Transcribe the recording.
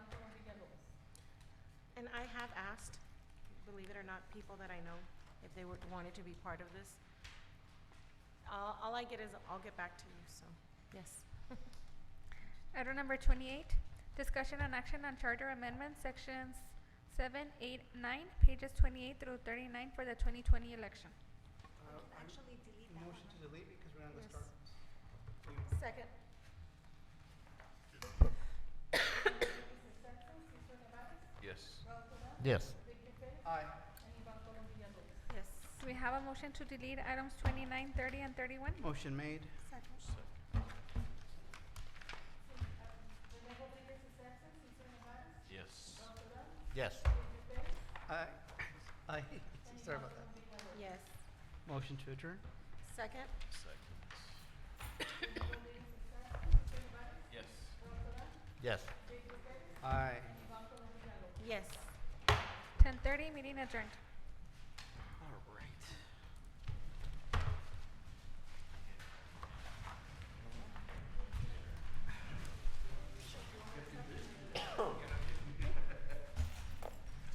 are not people that I know, if they would, wanted to be part of this. All, all I get is, I'll get back to you, so, yes. Item number twenty-eight, discussion and action on charter amendment, sections seven, eight, nine, pages twenty-eight through thirty-nine for the twenty twenty election. Uh, I'm- Actually delete that one. Motion to delete because we're on the Yes. start. Second. Yes. Yes. Aye. Yes. Do we have a motion to delete items 29, 30, and thirty-one? Motion made. Second. Yes. Yes. Aye. Aye. Sorry about that. Yes. Motion to adjourn. Second? Seconds. Yes. Yes. Aye. Yes. Ten thirty, meeting adjourned. All right.